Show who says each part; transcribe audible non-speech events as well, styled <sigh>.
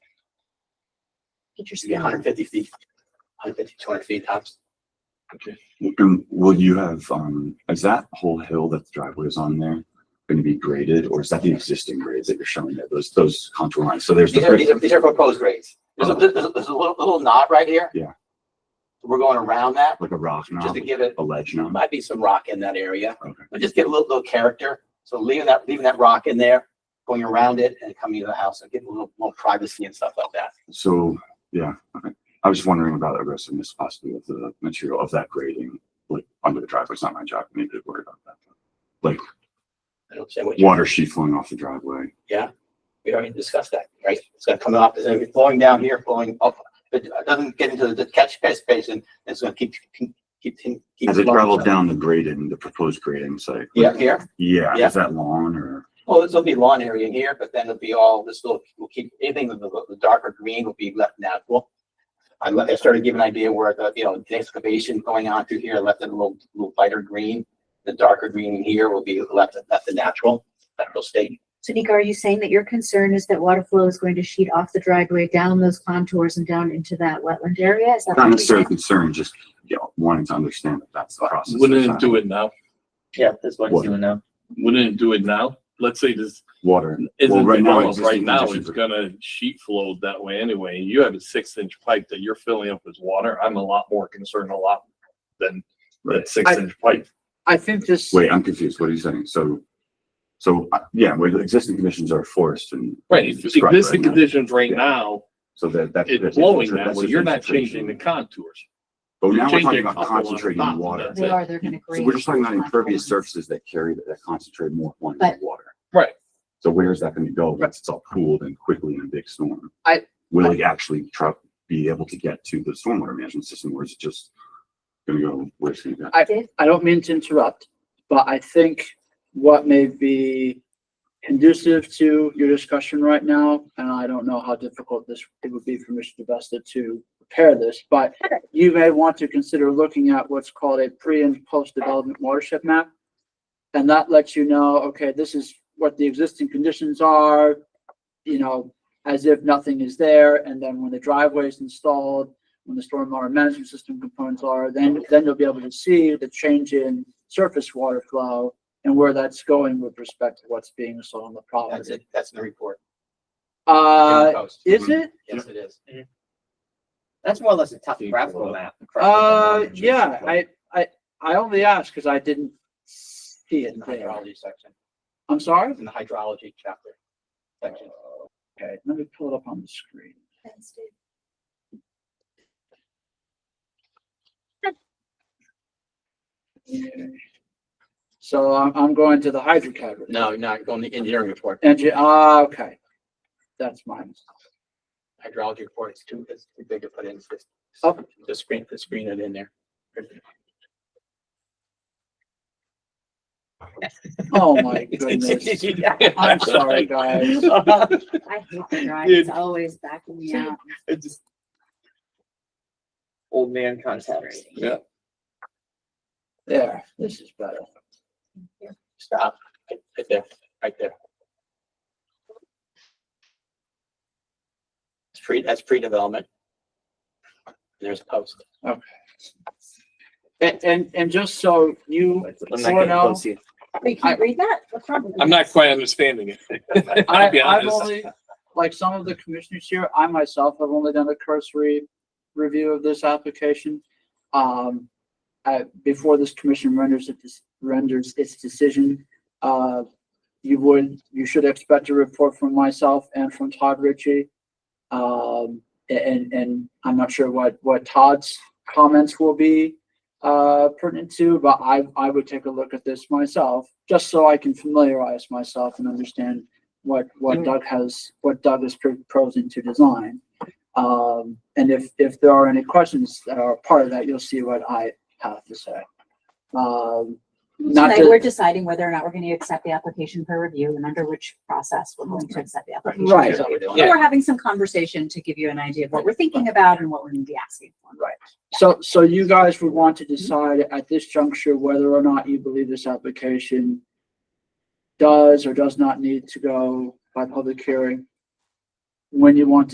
Speaker 1: Get your
Speaker 2: should be
Speaker 1: skin on.
Speaker 2: hundred fifty feet, 150, 200 feet tops.
Speaker 3: And would you have, um, is that whole hill that the driveway is on there gonna be graded, or is that the existing grades that you're showing there, those, those contour lines? So there's
Speaker 2: These are, these
Speaker 3: the,
Speaker 2: are, these are proposed grades. There's a, there's a, there's a little, little knot right here.
Speaker 3: Yeah.
Speaker 2: We're going around that
Speaker 3: like a rock
Speaker 2: just
Speaker 3: knob,
Speaker 2: to give it,
Speaker 3: a ledge
Speaker 2: there
Speaker 3: knob?
Speaker 2: might be some rock in that area,
Speaker 3: Okay.
Speaker 2: but just give it a little, little character. So leaving that, leaving that rock in there, going around it and coming to the house and getting a little more privacy and stuff like that.
Speaker 3: So, yeah, okay. I was just wondering about the aggressiveness possibly of the material of that grading, like under the driveway. It's not my job, maybe to worry about that.
Speaker 2: I don't say what you,
Speaker 3: Water sheet flowing off the driveway.
Speaker 2: we already discussed that, right? It's gonna come up, it's gonna be flowing down here, flowing up. But it doesn't get into the catch basin, it's gonna keep, keep, keep. keep
Speaker 3: As it
Speaker 2: flowing.
Speaker 3: traveled down the grading, the proposed grading site.
Speaker 2: Yeah, here.
Speaker 3: Yeah,
Speaker 2: Yeah.
Speaker 3: is that lawn or?
Speaker 2: Well, this will be lawn area in here, but then it'll be all, this will, will keep, anything with the, the darker green will be left natural. I let, I started giving an idea where the, you know, the excavation going on through here, I left it a little, little lighter green. The darker green in here will be left, left the natural, natural state.
Speaker 1: So Nika, are you saying that your concern is that water flow is going to sheet off the driveway down those contours and down into that wetland area? Is that? what
Speaker 3: Not
Speaker 1: you're
Speaker 3: necessarily
Speaker 1: saying?
Speaker 3: concerned, just, you know, wanting to understand that that's the process.
Speaker 4: Wouldn't it do it now?
Speaker 5: Yeah, that's what
Speaker 3: What?
Speaker 5: it's doing now.
Speaker 4: Wouldn't it do it now? Let's say this
Speaker 3: Water. Well,
Speaker 4: isn't
Speaker 3: right now,
Speaker 4: developed right
Speaker 3: existing
Speaker 4: now, it's
Speaker 3: conditions are-
Speaker 4: gonna sheet flow that way anyway. You have a six inch pipe that you're filling up with water. I'm a lot more concerned a lot than
Speaker 3: Right.
Speaker 4: that six inch pipe.
Speaker 6: I think this,
Speaker 3: Wait, I'm confused. What are you saying? So, so, uh, yeah, where the existing conditions are forced and.
Speaker 4: Right,
Speaker 3: and
Speaker 4: if
Speaker 3: described right
Speaker 4: existing
Speaker 3: now.
Speaker 4: conditions right now,
Speaker 3: So that, that.
Speaker 4: it's
Speaker 3: that's-
Speaker 4: flowing
Speaker 3: that's
Speaker 4: that way.
Speaker 3: just
Speaker 4: You're not
Speaker 3: infiltration.
Speaker 4: changing the <laughs> contours.
Speaker 3: But
Speaker 4: you're
Speaker 3: now we're talking
Speaker 4: changing
Speaker 3: about
Speaker 4: a couple on the top
Speaker 3: concentrating
Speaker 4: of
Speaker 3: water.
Speaker 4: that.
Speaker 1: They are, they're gonna
Speaker 3: So
Speaker 1: grade.
Speaker 3: we're just talking about
Speaker 1: those
Speaker 3: impervious
Speaker 1: contours.
Speaker 3: surfaces that carry, that concentrate more quantity
Speaker 1: But-
Speaker 3: of water.
Speaker 4: Right.
Speaker 3: So where is that gonna go once it's all cooled and quickly in a big storm?
Speaker 6: I-
Speaker 3: Will it actually try, be able to get to the stormwater management system or is it just gonna go, where's it gonna go?
Speaker 6: I don't mean to interrupt, but I think what may be conducive to your discussion right now, and I don't know how difficult this, it would be for Mr. DeVesta to prepare this, but you may want to consider looking at what's called a pre and post-development watershed map. And that lets you know, okay, this is what the existing conditions are, you know, as if nothing is there. And then when the driveway is installed, when the stormwater management system components are, then, then you'll be able to see the change in surface water flow and where that's going with respect to what's being installed on the
Speaker 2: That's
Speaker 6: property.
Speaker 2: it, that's in the report.
Speaker 6: Uh,
Speaker 2: Post.
Speaker 6: is it?
Speaker 2: Yes, it is.
Speaker 5: That's more or less a
Speaker 3: pull
Speaker 5: topographical
Speaker 3: it
Speaker 5: map.
Speaker 6: Uh, yeah, I, I, I only asked because I didn't see it
Speaker 2: In the
Speaker 6: there.
Speaker 2: hydrology section,
Speaker 6: I'm sorry?
Speaker 2: it's in the hydrology chapter. section.
Speaker 6: Okay, let me pull it up on the screen.
Speaker 1: That's it.
Speaker 6: Okay. So I'm, I'm going to the hydro cabinet.
Speaker 2: No, not going to the engineering report,
Speaker 6: And you, ah, okay. That's mine.
Speaker 2: hydrology report is too, is too big to put in, it's just-
Speaker 6: Oh.
Speaker 2: just screen, just screen it in there.
Speaker 6: Oh, my
Speaker 2: <laughs>
Speaker 6: goodness.
Speaker 4: <laughs>
Speaker 6: I'm sorry, guys.
Speaker 1: I hate the drive.
Speaker 5: Dude.
Speaker 1: It's always backing me out.
Speaker 5: Old man concepts.
Speaker 6: There, this is better.
Speaker 2: Stop, right there, right there. It's pre, that's pre-development. There's post.
Speaker 6: And, and, and just so you,
Speaker 5: I'm
Speaker 6: so now,
Speaker 1: Wait, can you read that? What's wrong with
Speaker 4: I'm
Speaker 1: you?
Speaker 4: not quite understanding it.
Speaker 6: I,
Speaker 4: <laughs> I'll be
Speaker 6: I've
Speaker 4: honest.
Speaker 6: only, like some of the commissioners here, I myself have only done a cursory review of this application. Um, uh, before this commission renders it, renders its decision, uh, you would, you should expect a report from myself and from Todd Ritchie. Um, and, and I'm not sure what, what Todd's comments will be, uh, pertinent to, but I, I would take a look at this myself, just so I can familiarize myself and understand what, what Doug has, what Doug is pro- proposing to design. Um, and if, if there are any questions that are part of that, you'll see what I have to say. Um, not
Speaker 1: Tonight, we're
Speaker 6: to,
Speaker 1: deciding whether or not we're gonna accept the application for review and under which process we're going to accept the application.
Speaker 6: Right.
Speaker 2: That's what we're doing.
Speaker 1: But We're having some conversation to give you an idea of what we're thinking about and what we're gonna be asking for.
Speaker 6: Right. so, so you guys would want to decide at this juncture whether or not you believe this application does or does not need to go by public hearing when you want to.